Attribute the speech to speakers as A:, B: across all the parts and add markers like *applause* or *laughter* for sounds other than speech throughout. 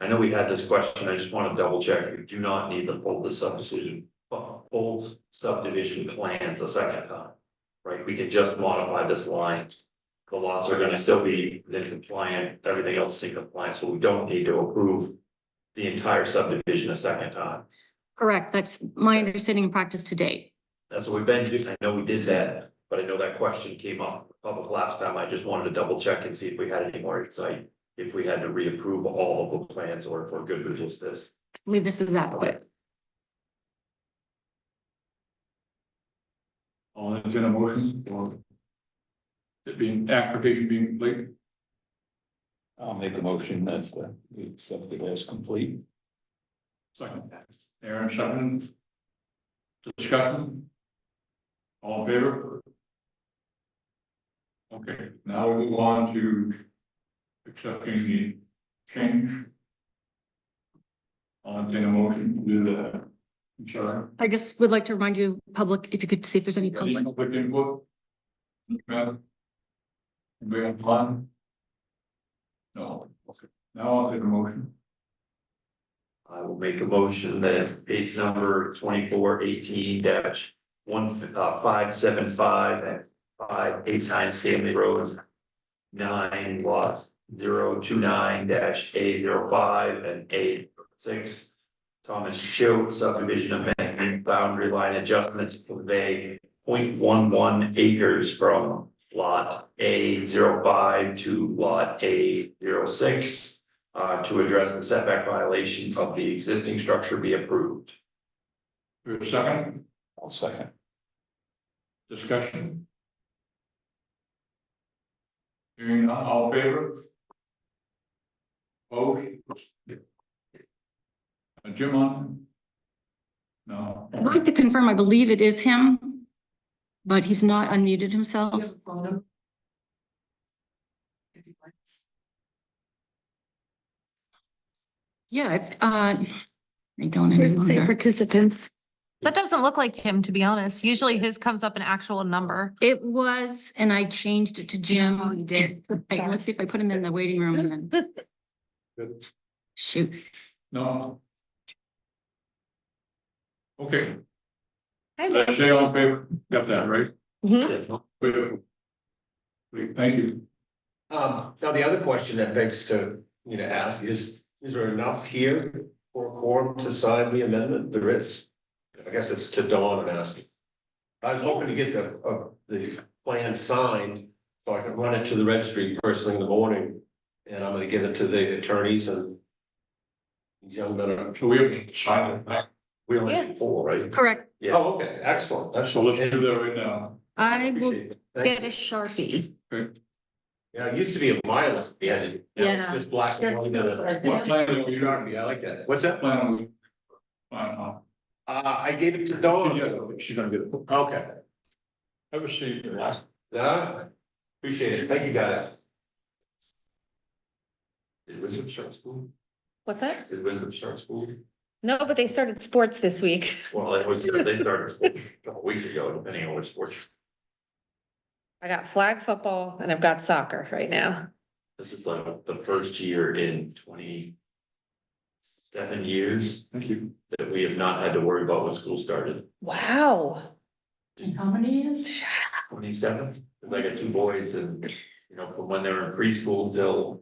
A: I know we had this question, I just wanna double check, you do not need to pull the subdivision, uh, pull subdivision plans a second time. Right, we can just modify this line. The lots are gonna still be in compliant, everything else is in compliance, so we don't need to approve. The entire subdivision a second time,
B: Correct, that's my understanding and practice to date.
A: that's what we've been doing, I know we did that, but I know that question came up public last time, I just wanted to double check and see if we had any more insight. If we had to reapprove all of the plans or if we're good with just this.
B: I believe this is adequate.
C: I'll entertain a motion for it being, application being complete.
D: I'll make a motion that uh, we accept it as complete.
C: Second. Aaron, second. Discussion. All in favor? Okay, now we move on to accepting the change. I'll entertain a motion to do the, I'm sorry.
B: I just would like to remind you, public, if you could see if there's any
C: Any
B: public.
C: Public input? Madam? Anybody have one? No, okay, now I'll take a motion.
A: I will make a motion that case number twenty-four eighteen dash one, uh, five seven five and five eight nine Stanley Road. Nine lots, zero two nine dash A zero five and A six. Thomas Cho subdivision amendment boundary line adjustments to convey 0.11 acres from. Lot A 5 to lot A 6 uh, to address the setback violation of the existing structure be approved.
C: Do a second
D: I'll second.
C: discussion. Hearing none, all in favor? Vote. Uh, Jim on? No.
B: I'd like to confirm, I believe it is him, but he's not unmuted himself. Yeah, if, uh, I don't any
E: Doesn't say
B: longer.
E: participants.
F: That doesn't look like him, to be honest. Usually his comes up an actual number.
B: It was, and I changed it to Jim.
E: Oh, you did.
B: Wait, let's see if I put him in the waiting room and then,
F: *laughs*
C: Good.
B: shoot.
C: No. Okay,
F: Hi.
C: did I say all in favor? Got that, right?
F: Hmm?
A: Yes.
C: Good. Great, Thank you.
G: Um, now the other question that begs to, you know, ask is, is there enough here for a quorum to sign the amendment? There is. I guess it's to Dawn and ask. I was hoping to get the, uh, the plan signed, so I could run it to the registry first thing in the morning. And I'm gonna give it to the attorneys and. these Young men are,
C: So we have silent,
G: we only need four, right?
B: Correct.
A: Yeah.
G: Oh, okay, excellent,
C: so
G: excellent.
C: let's do that right now.
B: I will
G: Appreciate it. Thank
B: get a
G: you.
B: Sharpie.
G: Yeah, it used to be a mile at the end. Now it's
B: Yeah.
G: Just black and white.
C: What plan are we-
G: Sharpie, I like that.
C: What's that plan? on the- Plan, huh?
G: Uh, I gave it to
C: She
G: Dawn.
D: Oh.
C: did. She's gonna get it.
G: Okay.
C: Have a seat.
G: Yeah, uh, appreciate it. Thank you, guys.
A: Did Winthrop start school?
F: What's that?
A: Did Winthrop start school?
F: No, but they started sports this week.
A: Well, it was, they started school a couple weeks ago, depending on which sport.
F: I got flag football and I've got soccer right now.
A: This is like the first year in twenty seven years
C: Thank you.
A: that we have not had to worry about when school started.
F: Wow.
B: How many is?
A: Twenty-seven, I got two boys and, you know, from when they were in preschool till.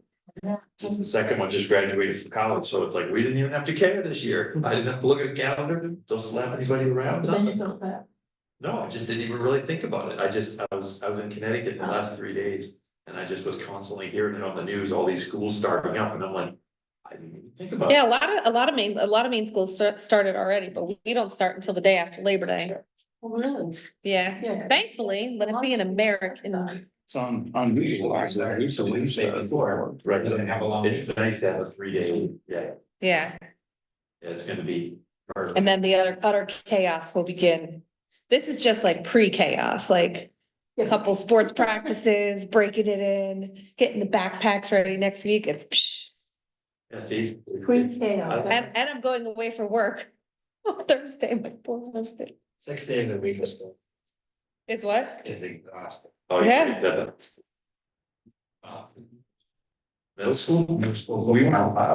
A: Just the second one just graduated from college, so it's like, we didn't even have to care this year. I didn't have to look at a calendar, don't slap anybody around. nothing. No, I just didn't even really think about it. I just, I was, I was in Connecticut the last three days. And I just was constantly hearing it on the news, all these schools starting up, and I'm like, I didn't even think about it.
F: Yeah, a lot of, a lot of main, a lot of main schools start- started already, but we we don't start until the day after Labor Day.
B: Oh, Really?
F: Yeah,
B: Yeah.
F: thankfully, let it be an American.
D: It's on, on visual.
A: Sorry, sorry, so we say before, right,
D: Doesn't have a long-
A: It's nice to have a three day, yeah,
F: Yeah,
A: it's gonna be. perfect.
F: and then the other, utter chaos will begin. This is just like pre-chaos, like a couple sports practices, breaking it in, getting the backpacks ready next week. It's psh.
A: Yeah, see? it's- it's-
F: And, and I'm going away for work *laughs* on Thursday, my poor husband.
A: Six days a week is,
F: It's what?
A: is exhausting. Oh,
F: Yeah.
A: that- that's- Middle school, middle school, we went out,